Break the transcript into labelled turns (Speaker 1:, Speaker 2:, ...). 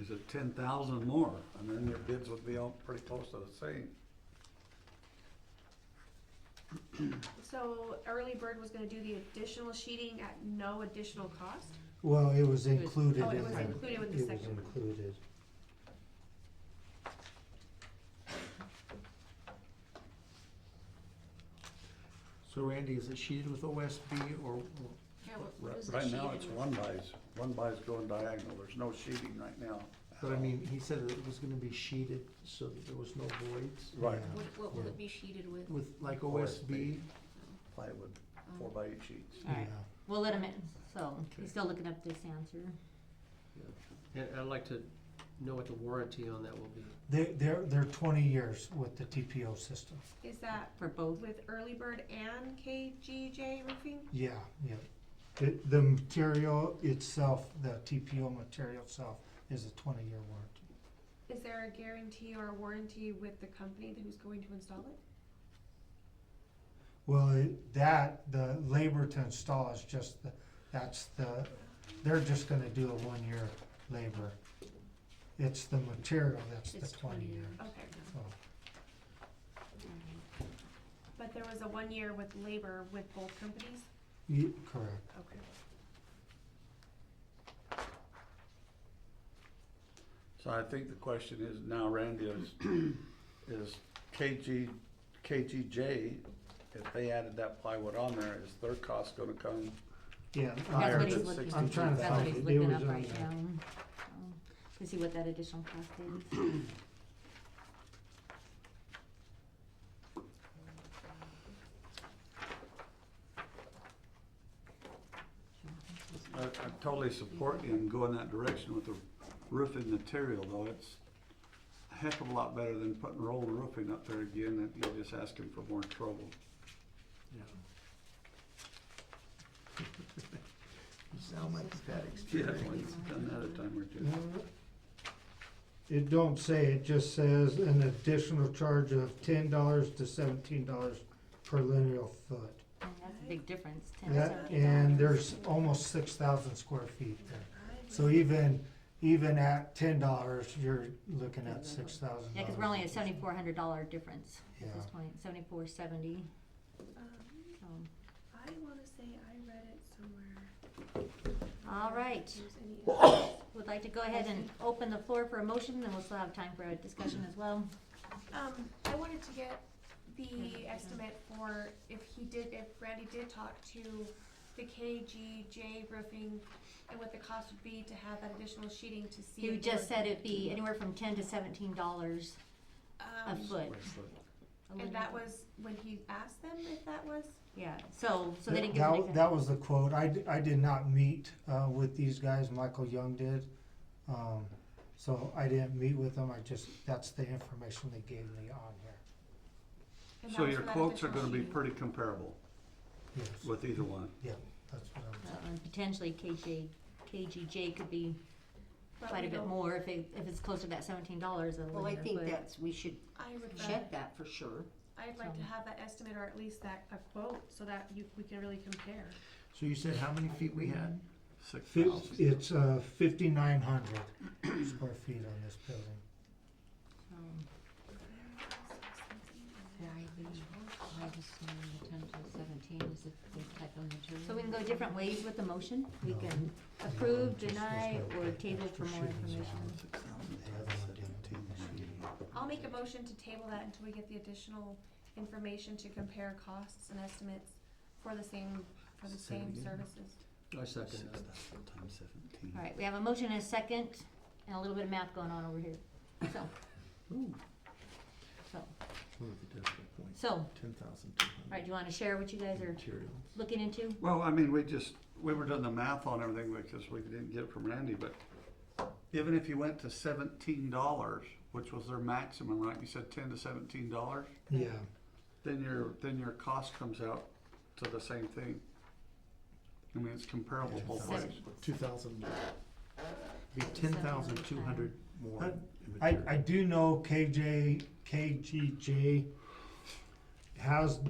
Speaker 1: is it ten thousand more? And then your bids would be all pretty close to the same.
Speaker 2: So early bird was gonna do the additional sheeting at no additional cost?
Speaker 3: Well, it
Speaker 4: was-
Speaker 3: was included
Speaker 2: oh, it
Speaker 3: in
Speaker 2: was
Speaker 3: the-
Speaker 2: included with the
Speaker 3: It was
Speaker 2: second one.
Speaker 3: included.
Speaker 5: So Randy, is it sheeted with OSB or, or-
Speaker 4: Yeah, what
Speaker 1: Ri-
Speaker 4: what was the
Speaker 1: Right
Speaker 4: sheet?
Speaker 1: now, it's one buys, one buys going diagonal, there's no sheeting right now.
Speaker 5: but I mean, he said that it was gonna be sheeted so that there was no voids
Speaker 1: Right,
Speaker 3: Yeah.
Speaker 4: What, what will it be sheeted with?
Speaker 5: with like
Speaker 1: OSB.
Speaker 5: OSB.
Speaker 1: plywood,
Speaker 4: Um,
Speaker 1: four by eight sheets.
Speaker 4: Alright,
Speaker 3: Yeah.
Speaker 4: we'll let him in, so,
Speaker 5: Okay.
Speaker 4: he's still looking up this answer.
Speaker 6: And I'd like to know what the warranty on that will be.
Speaker 3: They, they're, they're twenty years with the TPO system.
Speaker 2: Is that
Speaker 4: For both,
Speaker 2: with early bird and KGJ roofing?
Speaker 3: Yeah, yeah. It, the material itself, the TPO material itself is a twenty-year warranty.
Speaker 2: Is there a guarantee or a warranty with the company that who's going to install it?
Speaker 3: Well, it- that, the labor to install is just, the that's the, they're just gonna do a one-year labor. It's the material that's the
Speaker 4: it's twenty
Speaker 3: twenty-year. Oh,
Speaker 4: years.
Speaker 2: Okay,
Speaker 3: So,
Speaker 2: but there was a one year with labor with both companies?
Speaker 3: ye- correct.
Speaker 2: Okay.
Speaker 1: So I think the question is now, Randy, is, is KG, KGJ, if they added that plywood on there, is their cost gonna come?
Speaker 3: Yeah.
Speaker 4: That's
Speaker 1: Higher
Speaker 4: what
Speaker 3: uh,
Speaker 4: he's
Speaker 1: than
Speaker 4: looking,
Speaker 3: I'm trying to
Speaker 4: that's what
Speaker 3: find
Speaker 4: he's
Speaker 3: it.
Speaker 4: looking
Speaker 3: It
Speaker 4: up
Speaker 3: was
Speaker 4: right
Speaker 3: on
Speaker 4: now, so, to see what that additional cost is.
Speaker 1: I, I totally support you in going that direction with the roofing material, though it's a heck of a lot better than putting rolled roofing up there again, that you're just asking for more trouble.
Speaker 5: Yeah. You sound like you've had
Speaker 1: Yeah,
Speaker 5: experience.
Speaker 1: well, it's done that a time or two.
Speaker 3: Uh, It don't say, it just says an additional charge of ten dollars to seventeen dollars per linear foot.
Speaker 4: And That's a big difference, ten
Speaker 3: That,
Speaker 4: seventy dollars.
Speaker 3: and there's almost six thousand square feet there. So even, even at ten dollars, you're looking at six thousand dollars.
Speaker 4: Yeah, cause we're only at seventy-four hundred dollar difference at this
Speaker 3: Yeah.
Speaker 4: point, seventy-four seventy, so,
Speaker 2: I wanna say I read it somewhere.
Speaker 4: all right. Would like to go ahead and open the floor for a motion, then we'll still have time for a discussion as well.
Speaker 2: Um, I wanted to get the estimate for if he did, if Randy did talk to the KGJ roofing and what the cost would be to have that additional sheeting to see.
Speaker 4: You
Speaker 2: if
Speaker 4: just
Speaker 2: we're-
Speaker 4: said it'd be anywhere from ten to seventeen dollars a
Speaker 2: Um,
Speaker 4: foot. a linear
Speaker 2: And that
Speaker 4: foot.
Speaker 2: was when he asked them if that was,
Speaker 4: Yeah, so, so they
Speaker 3: That,
Speaker 4: didn't give an
Speaker 3: that- that
Speaker 4: example.
Speaker 3: was the quote. I, d- I did not meet, uh, with these guys. Michael Young did. Um, so I didn't meet with them. I just, that's the information they gave me on here.
Speaker 2: and that
Speaker 1: So
Speaker 2: was
Speaker 1: your
Speaker 2: for that
Speaker 1: quotes are
Speaker 2: additional
Speaker 1: gonna be
Speaker 2: sheeting.
Speaker 1: pretty comparable
Speaker 3: Yes,
Speaker 1: with either one.
Speaker 3: that's what I'm saying.
Speaker 4: Uh, and Potentially KJ, KGJ could be
Speaker 2: But
Speaker 4: quite
Speaker 2: we
Speaker 4: a bit
Speaker 2: don't-
Speaker 4: more if it, if it's closer to that seventeen dollars a
Speaker 7: Well, I
Speaker 4: linear
Speaker 7: think
Speaker 4: foot.
Speaker 7: that's, we should
Speaker 2: I would, uh,
Speaker 7: check that for sure.
Speaker 2: I'd like to have that estimate or at least that, a quote, so that you, we can really compare.
Speaker 5: So you said how many feet we had?
Speaker 1: Six
Speaker 3: Fif-
Speaker 1: thousand.
Speaker 3: It's, uh, fifty-nine hundred square feet on this building.
Speaker 4: Um, So we can go different ways with the motion, we
Speaker 3: No.
Speaker 4: can
Speaker 3: No,
Speaker 4: approve,
Speaker 3: just-
Speaker 4: deny,
Speaker 3: just go
Speaker 4: or
Speaker 3: with
Speaker 4: table for
Speaker 3: extra
Speaker 4: more
Speaker 3: shoes on.
Speaker 4: information.
Speaker 3: The other one didn't take the shoe.
Speaker 2: I'll make a motion to table that until we get the additional information to compare costs and estimates for the same, for the
Speaker 1: Say it
Speaker 2: same
Speaker 1: again.
Speaker 2: services.
Speaker 6: I second that.
Speaker 1: times seventeen.
Speaker 4: Alright, we have a motion and a second, and a little bit of math going on over here, so. So, so,
Speaker 5: Ten thousand two
Speaker 4: alright, do you wanna share what you guys are
Speaker 5: Materials.
Speaker 4: looking into?
Speaker 1: Well, I mean, we just, we were doing the math on everything because we didn't get it from Randy, but even if you went to seventeen dollars, which was their maximum, right, you said ten to seventeen dollars,
Speaker 3: Yeah,
Speaker 1: then your, then your cost comes out to the same thing. I mean, it's comparable both ways.
Speaker 4: Seven.
Speaker 5: Two thousand, be ten thousand two hundred more.
Speaker 3: I-
Speaker 5: in
Speaker 3: I, I
Speaker 5: material.
Speaker 3: do know KJ, KGJ has